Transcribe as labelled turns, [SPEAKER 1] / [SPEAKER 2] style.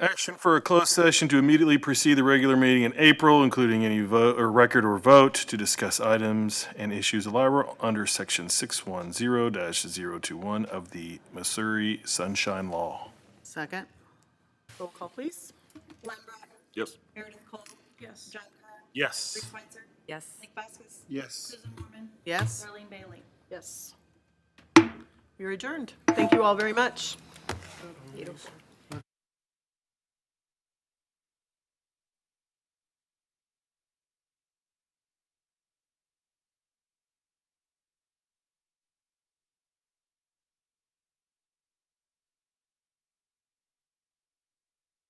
[SPEAKER 1] Action for a closed session to immediately precede the regular meeting in April, including any vote, or record or vote to discuss items and issues allowable under section six one zero 21 of the Missouri Sunshine Law.
[SPEAKER 2] Second?
[SPEAKER 3] Roll call, please.
[SPEAKER 4] Glenn Breck.
[SPEAKER 1] Yes.
[SPEAKER 4] Meredith Cole. Yes. John Kerr.
[SPEAKER 1] Yes.
[SPEAKER 4] Switzer.
[SPEAKER 3] Yes.
[SPEAKER 4] Nick Vaskus.
[SPEAKER 1] Yes.
[SPEAKER 4] Susan Mormon.
[SPEAKER 2] Yes?
[SPEAKER 4] Darlene Bailey.
[SPEAKER 3] Yes. You're adjourned. Thank you all very much.